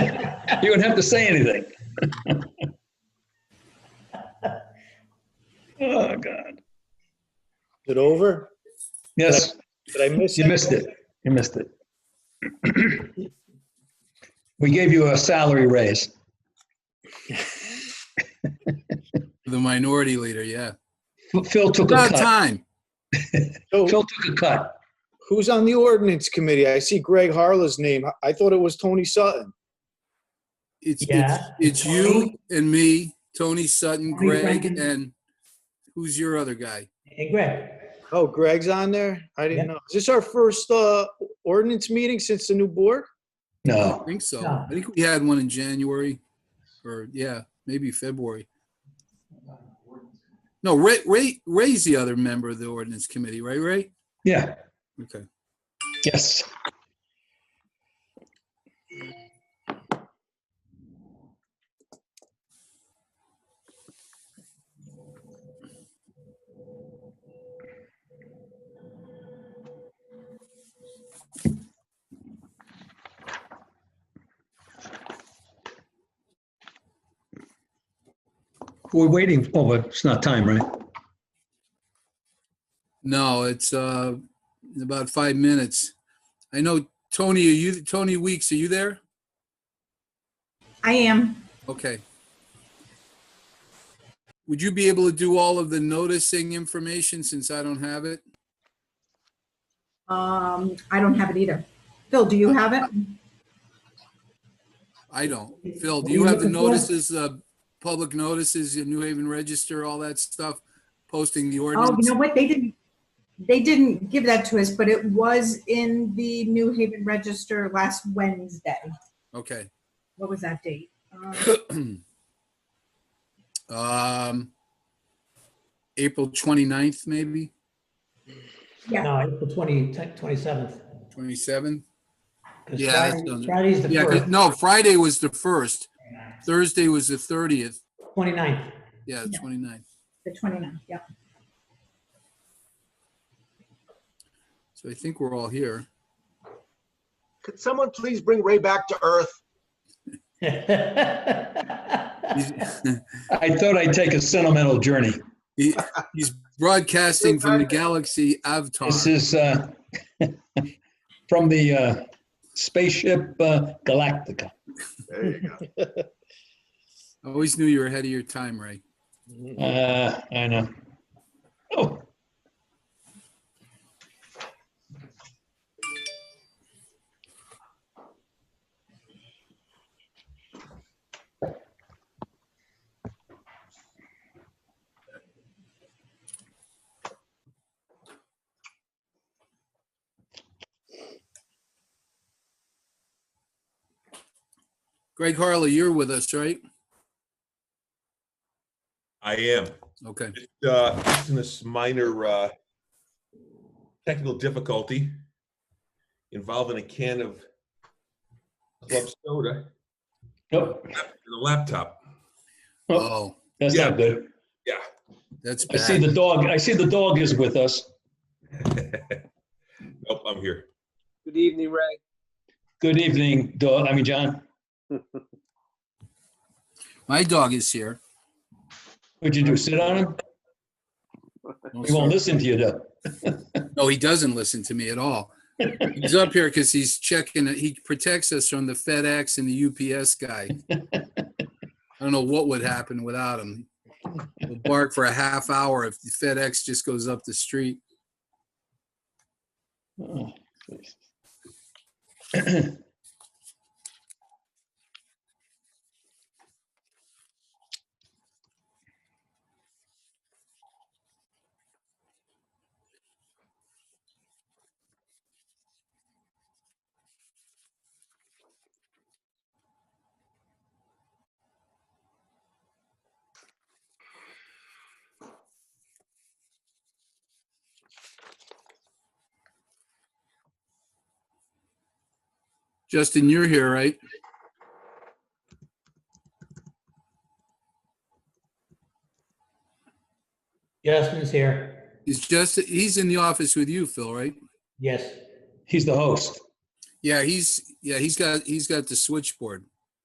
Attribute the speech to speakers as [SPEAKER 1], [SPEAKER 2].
[SPEAKER 1] You wouldn't have to say anything. Oh, God.
[SPEAKER 2] Is it over?
[SPEAKER 1] Yes,
[SPEAKER 2] Did I miss it?
[SPEAKER 1] you missed it. You missed it. We gave you a salary raise.
[SPEAKER 3] The minority leader, yeah.
[SPEAKER 1] Phil took a
[SPEAKER 3] About
[SPEAKER 1] cut.
[SPEAKER 3] time.
[SPEAKER 2] So
[SPEAKER 1] Phil took a cut.
[SPEAKER 2] who's on the ordinance committee? I see Greg Harla's name. I- I thought it was Tony Sutton.
[SPEAKER 3] It's, it's,
[SPEAKER 4] Yeah.
[SPEAKER 3] it's you and me, Tony Sutton,
[SPEAKER 4] Tony
[SPEAKER 3] Greg,
[SPEAKER 4] Brennan.
[SPEAKER 3] and who's your other guy?
[SPEAKER 4] Hey, Greg,
[SPEAKER 2] Oh, Greg's on there? I didn't know. Is this our first uh, ordinance meeting since the new board?
[SPEAKER 3] I
[SPEAKER 1] No.
[SPEAKER 3] think so.
[SPEAKER 4] Yeah.
[SPEAKER 3] I think we had one in January or, yeah, maybe February. No, Ray, Ray, Ray's the other member of the ordinance committee, right, Ray?
[SPEAKER 1] Yeah.
[SPEAKER 3] Okay.
[SPEAKER 1] Yes. We're waiting, oh, but it's not time, right?
[SPEAKER 3] No, it's, uh, in about five minutes. I know, Tony, are you, Tony Weeks, are you there?
[SPEAKER 5] I am.
[SPEAKER 3] Okay. Would you be able to do all of the noticing information since I don't have it?
[SPEAKER 5] Um, I don't have it either. Phil, do you have it?
[SPEAKER 3] I don't. Phil,
[SPEAKER 4] What
[SPEAKER 3] do
[SPEAKER 4] are
[SPEAKER 3] you
[SPEAKER 4] you
[SPEAKER 3] have the
[SPEAKER 4] looking for?
[SPEAKER 3] notices, the public notices, your New Haven Register, all that stuff, posting the
[SPEAKER 5] Oh, you
[SPEAKER 3] ordinance?
[SPEAKER 5] know what? They didn't, they didn't give that to us, but it was in the New Haven Register last Wednesday.
[SPEAKER 3] Okay.
[SPEAKER 5] What was that date? Um,
[SPEAKER 3] Um, April 29th, maybe,
[SPEAKER 5] Yeah,
[SPEAKER 4] no, April 20, 27th.
[SPEAKER 3] 27th?
[SPEAKER 4] 'cause
[SPEAKER 3] Yeah, that
[SPEAKER 4] Friday-
[SPEAKER 3] sounds-
[SPEAKER 4] Friday's the
[SPEAKER 3] Yeah, 'cause-
[SPEAKER 4] 1st,
[SPEAKER 3] no, Friday was the first. Thursday was the 30th.
[SPEAKER 4] 29th.
[SPEAKER 3] Yeah,
[SPEAKER 5] Yeah.
[SPEAKER 3] 29th.
[SPEAKER 5] the 29th, yeah.
[SPEAKER 3] So I think we're all here.
[SPEAKER 6] Could someone please bring Ray back to earth?
[SPEAKER 3] He's-
[SPEAKER 1] I thought I'd take a sentimental journey.
[SPEAKER 3] He, he's broadcasting from the galaxy Avatar.
[SPEAKER 1] This is uh, from the uh, spaceship uh, Galactica.
[SPEAKER 6] There you go.
[SPEAKER 3] I always knew you were ahead of your time, Ray.
[SPEAKER 1] Uh, I know. Oh,
[SPEAKER 3] Greg Harley, you're with us, right?
[SPEAKER 7] I am.
[SPEAKER 3] Okay.
[SPEAKER 7] Just, uh, just in this minor, uh, technical difficulty involving a can of club soda
[SPEAKER 1] nope.
[SPEAKER 7] and a laptop.
[SPEAKER 1] Oh,
[SPEAKER 3] Oh,
[SPEAKER 1] that's
[SPEAKER 7] yeah.
[SPEAKER 1] not good.
[SPEAKER 3] that's
[SPEAKER 1] I see
[SPEAKER 3] bad.
[SPEAKER 1] the dog. I see the dog is with us.
[SPEAKER 7] Nope, I'm here.
[SPEAKER 8] Good evening, Ray.
[SPEAKER 1] Good evening, dog. I mean, John.
[SPEAKER 3] My dog is here.
[SPEAKER 1] What'd you do? Sit on him?
[SPEAKER 3] No,
[SPEAKER 1] He won't
[SPEAKER 3] sir.
[SPEAKER 1] listen to you, though.
[SPEAKER 3] No, he doesn't listen to me at all. He's up here because he's checking, it. he protects us from the FedEx and the UPS guy. I don't know what would happen without him. He'll bark for a half hour if the FedEx just goes up the street.
[SPEAKER 1] Oh, please.
[SPEAKER 3] Justin, you're here, right?
[SPEAKER 4] Justin's here.
[SPEAKER 3] He's just, he's in the office with you, Phil, right?
[SPEAKER 4] Yes.
[SPEAKER 1] He's the host.
[SPEAKER 3] Yeah, he's, yeah, he's got, he's got the switchboard.